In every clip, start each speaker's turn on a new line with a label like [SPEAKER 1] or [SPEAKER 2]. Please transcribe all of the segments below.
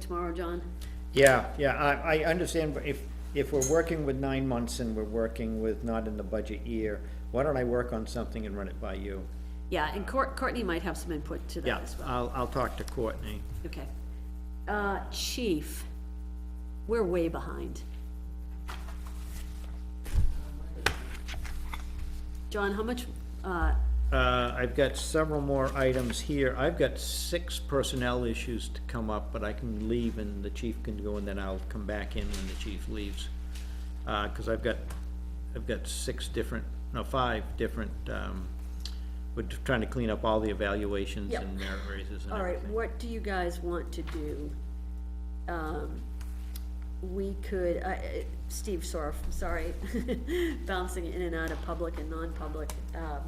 [SPEAKER 1] tomorrow, John.
[SPEAKER 2] Yeah, yeah, I, I understand, but if, if we're working with nine months and we're working with not in the budget year, why don't I work on something and run it by you?
[SPEAKER 1] Yeah, and Court, Courtney might have some input to
[SPEAKER 2] Yeah,
[SPEAKER 1] that as well.
[SPEAKER 2] I'll, I'll talk to Courtney.
[SPEAKER 1] Okay. Uh, chief, we're way behind. John, how much, uh,
[SPEAKER 2] Uh, I've got several more items here. I've got six personnel issues to come up, but I can leave and the chief can go and then I'll come back in when the chief leaves. Uh, cause I've got, I've got six different, no, five different, um, we're trying to clean up all the evaluations
[SPEAKER 1] Yep.
[SPEAKER 2] and merit raises and
[SPEAKER 1] all right,
[SPEAKER 2] everything.
[SPEAKER 1] what do you guys want to do? Um, we could, uh, Steve Sorf, sorry, bouncing in and out of public and non-public, um,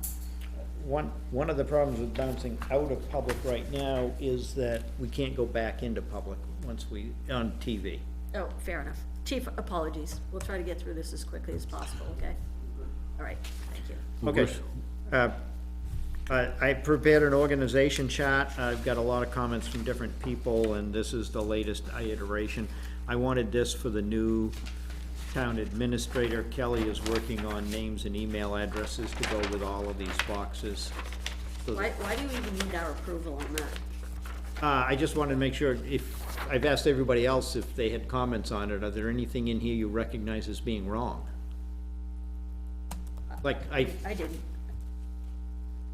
[SPEAKER 2] One, one of the problems with bouncing out of public right now is that we can't go back into public once we, on TV.
[SPEAKER 1] Oh, fair enough. Chief, apologies. We'll try to get through this as quickly as possible, okay? All right, thank you.
[SPEAKER 2] Okay. Uh, I I prepared an organization chart. I've got a lot of comments from different people, and this is the latest iteration. I wanted this for the new town administrator. Kelly is working on names and email addresses to go with all of these boxes. So that-
[SPEAKER 1] Why, why do you even need our approval on that?
[SPEAKER 2] Uh, I just wanted to make sure if, I've asked everybody else if they had comments on it. Are there anything in here you recognize as being wrong? Like, I,
[SPEAKER 1] I didn't.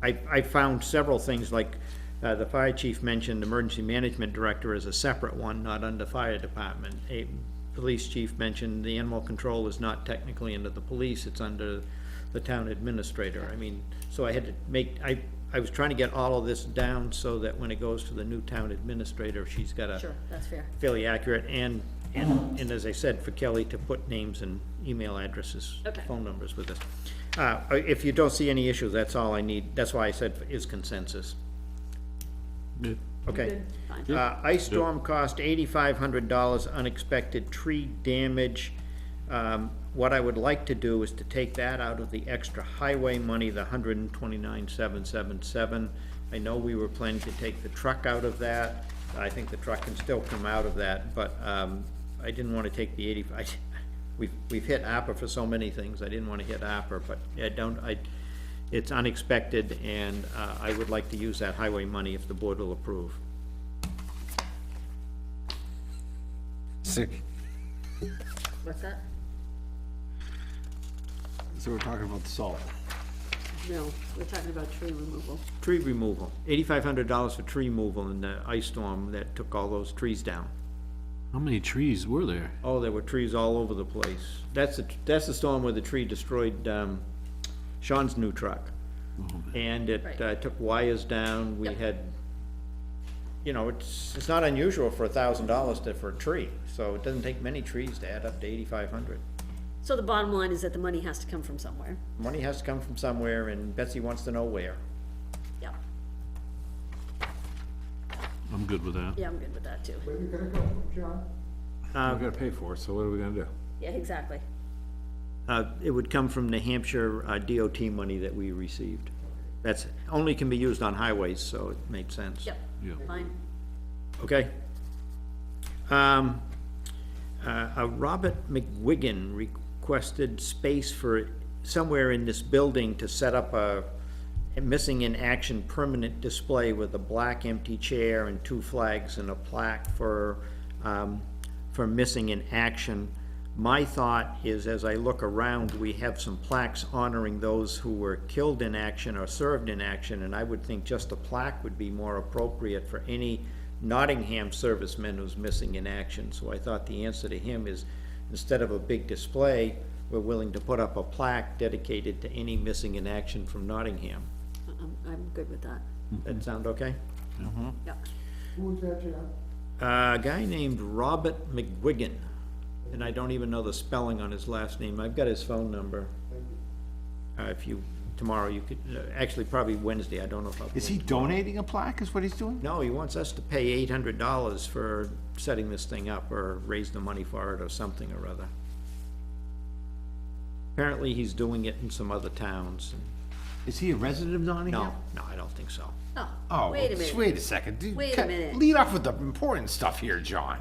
[SPEAKER 2] I, I found several things, like, uh, the fire chief mentioned emergency management director is a separate one, not under fire department. A police chief mentioned the animal control is not technically under the police, it's under the town administrator. I mean, so I had to make, I, I was trying to get all of this down so that when it goes to the new town administrator, she's got a
[SPEAKER 1] Sure, that's fair.
[SPEAKER 2] fairly accurate, and, and, and as I said, for Kelly to put names and email addresses,
[SPEAKER 1] Okay.
[SPEAKER 2] phone numbers with us. Uh, if you don't see any issues, that's all I need, that's why I said is consensus,
[SPEAKER 3] Yeah,
[SPEAKER 2] okay?
[SPEAKER 1] Fine.
[SPEAKER 2] Uh, ice storm cost eighty-five hundred dollars, unexpected tree damage. Um, what I would like to do is to take that out of the extra highway money, the hundred and twenty-nine, seven, seven, seven. I know we were planning to take the truck out of that, I think the truck can still come out of that, but, um, I didn't wanna take the eighty, I, we've, we've hit APRA for so many things, I didn't wanna hit APRA, but I don't, I, it's unexpected, and, uh, I would like to use that highway money if the board will approve.
[SPEAKER 3] So
[SPEAKER 1] What's that?
[SPEAKER 3] so we're talking about the salt.
[SPEAKER 1] No, we're talking about tree removal.
[SPEAKER 2] Tree removal, eighty-five hundred dollars for tree removal in the ice storm that took all those trees down.
[SPEAKER 3] How many trees were there?
[SPEAKER 2] Oh, there were trees all over the place. That's the, that's the storm where the tree destroyed, um, Sean's new truck. And it,
[SPEAKER 1] Right.
[SPEAKER 2] uh, took wires down, we
[SPEAKER 1] Yep.
[SPEAKER 2] had, you know, it's, it's not unusual for a thousand dollars to, for a tree, so it doesn't take many trees to add up to eighty-five hundred.
[SPEAKER 1] So the bottom line is that the money has to come from somewhere.
[SPEAKER 2] Money has to come from somewhere, and Betsy wants to know where.
[SPEAKER 1] Yeah,
[SPEAKER 3] I'm good with that.
[SPEAKER 1] yeah, I'm good with that too.
[SPEAKER 3] We're gonna pay for it, so what are we gonna do?
[SPEAKER 1] Yeah, exactly.
[SPEAKER 2] Uh, it would come from New Hampshire uh, DOT money that we received. That's, only can be used on highways, so it made sense.
[SPEAKER 1] Yep,
[SPEAKER 3] Yeah.
[SPEAKER 1] fine.
[SPEAKER 2] Okay. Um, uh, uh, Robert McWiggin requested space for, somewhere in this building to set up a a missing in action permanent display with a black empty chair and two flags and a plaque for, um, for missing in action. My thought is, as I look around, we have some plaques honoring those who were killed in action or served in action, and I would think just a plaque would be more appropriate for any Nottingham serviceman who's missing in action. So I thought the answer to him is, instead of a big display, we're willing to put up a plaque dedicated to any missing in action from Nottingham.
[SPEAKER 1] I'm, Uh-uh, I'm good with that.
[SPEAKER 2] That sound okay?
[SPEAKER 1] Yeah.
[SPEAKER 2] Uh, A guy named Robert McGuigan, and I don't even know the spelling on his last name. I've got his phone number. Uh, If you, tomorrow, you could, uh, actually, probably Wednesday, I don't know if I'll.
[SPEAKER 4] Is he donating a plaque, is what he's doing?
[SPEAKER 2] No, he wants us to pay eight hundred dollars for setting this thing up, or raise the money for it, or something or other. Apparently, he's doing it in some other towns.
[SPEAKER 4] Is he a resident of Nottingham?
[SPEAKER 2] No, no, I don't think so.
[SPEAKER 1] Oh,
[SPEAKER 4] Oh,
[SPEAKER 1] wait a minute.
[SPEAKER 4] wait a second. dude,
[SPEAKER 1] Wait a
[SPEAKER 4] ca-
[SPEAKER 1] minute.
[SPEAKER 4] Lead off with the important stuff here, John.